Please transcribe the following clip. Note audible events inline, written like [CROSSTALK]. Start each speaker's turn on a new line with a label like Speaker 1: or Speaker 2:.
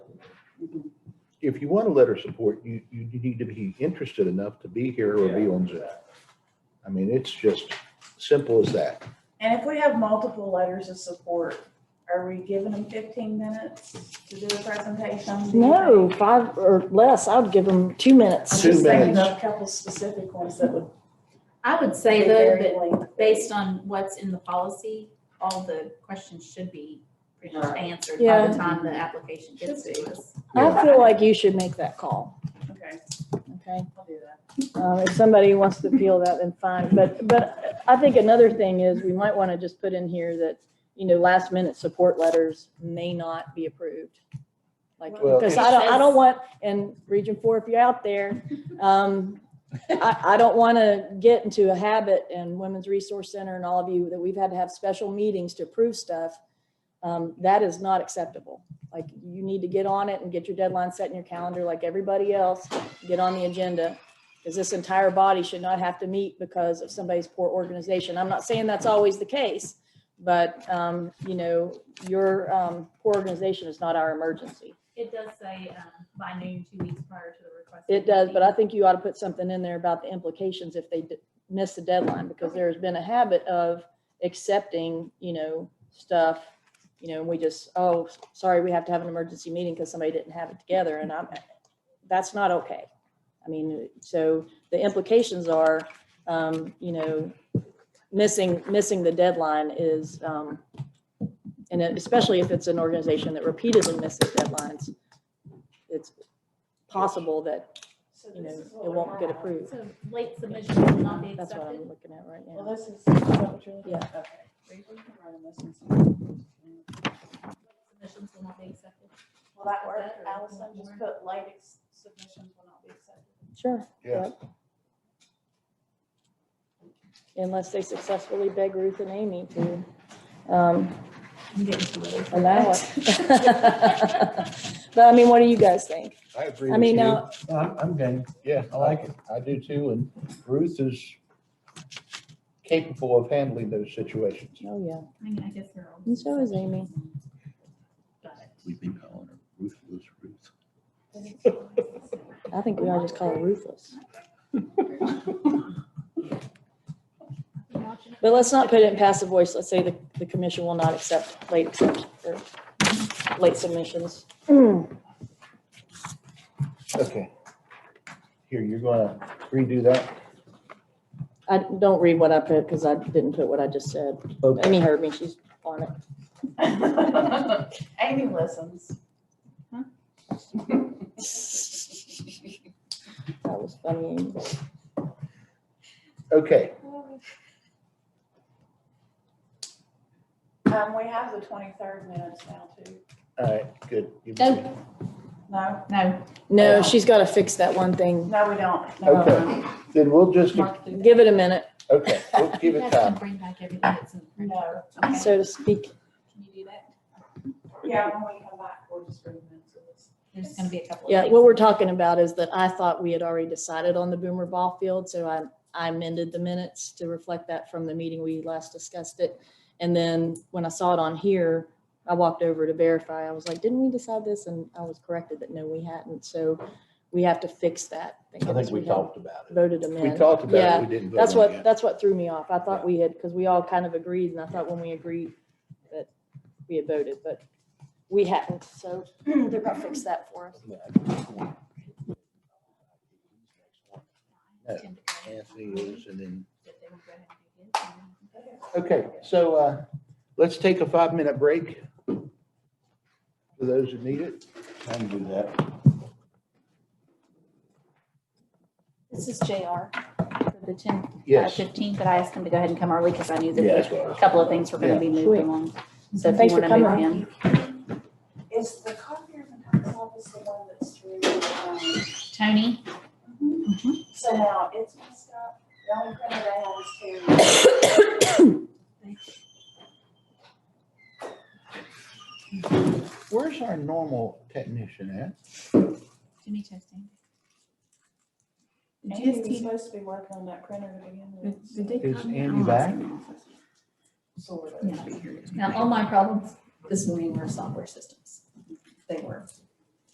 Speaker 1: if you want a letter of support, you, you need to be interested enough to be here or be on Zoom. I mean, it's just simple as that.
Speaker 2: And if we have multiple letters of support, are we giving them fifteen minutes to do a presentation?
Speaker 3: No, five or less, I would give them two
Speaker 2: I'm
Speaker 3: minutes.
Speaker 1: Two
Speaker 2: just thinking
Speaker 1: minutes.
Speaker 2: of a couple specific ones that would
Speaker 4: I would
Speaker 2: be
Speaker 4: say though,
Speaker 2: very
Speaker 4: that
Speaker 2: lengthy.
Speaker 4: based on what's in the policy, all the questions should be pretty much answered by
Speaker 3: Yeah.
Speaker 4: the time
Speaker 1: Mm-hmm.
Speaker 4: the application gets to us.
Speaker 3: I feel like you should make that call,
Speaker 2: Okay,
Speaker 3: okay?
Speaker 2: I'll do that.
Speaker 3: Um, If somebody wants to appeal that, then fine. But, but I think another thing is we might want to just put in here that, you know, last minute support letters may not be approved. Like,
Speaker 1: Well-
Speaker 3: because I don't, I don't want, and Region Four, if you're out there, um, I, I don't want to get into a habit and Women's Resource Center and all of you that we've had to have special meetings to approve stuff. Um, that is not acceptable. Like, you need to get on it and get your deadline set in your calendar like everybody else. Get on the agenda because this entire body should not have to meet because of somebody's poor organization. I'm not saying that's always the case, but, um, you know, your, um, poor organization is not our emergency.
Speaker 4: It does say um, by noon, two weeks prior to the request.
Speaker 3: It does, but I think you ought to put something in there about the implications if they d- miss the deadline, because there's been a habit of accepting, you know, stuff, you know, and we just, oh, sorry, we have to have an emergency meeting because somebody didn't have it together, and I'm, that's not okay. I mean, so the implications are, um, you know, missing, missing the deadline is, um, and it- especially if it's an organization that repeatedly misses deadlines, it's possible that
Speaker 2: So
Speaker 3: you know,
Speaker 2: this is what
Speaker 3: it
Speaker 2: we
Speaker 3: won't get
Speaker 2: have.
Speaker 3: approved.
Speaker 4: So late submission will not be
Speaker 3: That's what I'm
Speaker 4: accepted.
Speaker 3: looking at right
Speaker 2: Well,
Speaker 3: now.
Speaker 2: this is. is that what you're looking
Speaker 3: Yeah.
Speaker 2: at? Okay. Maybe we can write them this and see.
Speaker 4: Submissions will not be accepted.
Speaker 2: Will that work, Allison? Just put late ex- submissions will not be accepted.
Speaker 3: Sure.
Speaker 1: Yeah.
Speaker 3: Unless they successfully beg Ruth and Amy to um,
Speaker 4: I'm getting to it.
Speaker 3: allow it. [LAUGHS] But I mean, what do you guys think?
Speaker 1: I agree
Speaker 3: I
Speaker 1: with
Speaker 3: mean, uh,
Speaker 1: you.
Speaker 3: now,
Speaker 5: I'm, I'm game.
Speaker 1: Yeah,
Speaker 5: I like it.
Speaker 1: I do too, and Ruth is capable of handling those situations.
Speaker 3: oh, yeah,
Speaker 4: I mean, I guess they're all.
Speaker 3: and so is Amy.
Speaker 4: Got it.
Speaker 1: We've been calling her ruthless Ruth. [LAUGHS]
Speaker 3: I think we ought to just call her ruthless. But let's not put it in passive voice. Let's say the, the commission will not accept late accept, or late submissions.
Speaker 1: Okay. Here, you're gonna redo that?
Speaker 3: I don't read what I put because I didn't put what I just said. Amy heard me, she's on it.
Speaker 2: [LAUGHS] Amy listens.
Speaker 3: That was funny.
Speaker 1: Okay,
Speaker 2: Um, we have the twenty-third minutes now too.
Speaker 1: all right, good. Give me-
Speaker 3: No.
Speaker 2: No,
Speaker 4: No,
Speaker 1: Oh,
Speaker 3: No, she's got to fix that one thing.
Speaker 2: no, we don't. No,
Speaker 3: Okay.
Speaker 1: Then we'll just,
Speaker 4: Mark through that.
Speaker 3: Give it a minute,
Speaker 1: okay, we'll give
Speaker 4: You
Speaker 1: it
Speaker 4: guys can
Speaker 1: time.
Speaker 4: Bring back everything that's in. the
Speaker 2: No.
Speaker 4: Okay.
Speaker 3: so to speak.
Speaker 4: Can you do that?
Speaker 2: Yeah, when we come back, we'll just bring minutes of this.
Speaker 4: There's gonna be a couple. of
Speaker 3: Yeah,
Speaker 4: things.
Speaker 3: what we're talking about is that I thought we had already decided on the Boomer Ball Field, so I, I amended the minutes to reflect that from the meeting we last discussed it. And then when I saw it on here, I walked over to verify. I was like, didn't we decide this? And I was corrected that no, we hadn't. So we have to fix that.
Speaker 1: I think
Speaker 3: because
Speaker 1: we
Speaker 3: had
Speaker 1: talked about it.
Speaker 3: Voted them
Speaker 1: We
Speaker 3: in.
Speaker 1: talked
Speaker 3: Yeah,
Speaker 1: about it, we didn't vote
Speaker 3: That's
Speaker 1: on it
Speaker 3: what,
Speaker 1: yet.
Speaker 3: that's what threw me off. I thought we had, because we all kind of agreed, and I thought when we agreed that we had voted, but we hadn't, so [CLEARS THROAT] they're gonna fix that for us.
Speaker 1: No.
Speaker 4: Tend to go ahead
Speaker 1: Anthony is, and then,
Speaker 4: and- they will go ahead and do this, and then-
Speaker 1: okay, so, uh, let's take a five-minute break for those who need it.
Speaker 5: I can do that.
Speaker 4: This is JR, for the 10, uh,
Speaker 1: Yes.
Speaker 4: 15, but I asked him to go ahead and come early because I knew that
Speaker 1: Yeah,
Speaker 4: there
Speaker 1: that's what I
Speaker 4: were
Speaker 1: was-
Speaker 4: a couple of things were going
Speaker 1: Yeah.
Speaker 4: to be
Speaker 3: Sweet.
Speaker 4: moved along. So if
Speaker 3: Thanks
Speaker 4: you
Speaker 3: for
Speaker 4: want to
Speaker 3: coming.
Speaker 4: move in.
Speaker 2: Is the copiers and copies office the one that's through? um,
Speaker 4: Tony?
Speaker 3: Mm-hmm.
Speaker 2: So now it's messed up. The only printer I have is
Speaker 1: Where's our normal technician at?
Speaker 4: Jimmy testing.
Speaker 2: two. Andy was supposed to be working on that printer to begin with.
Speaker 1: Is Andy back?
Speaker 2: Sort of.
Speaker 4: Now, all my problems this morning were software systems. They were.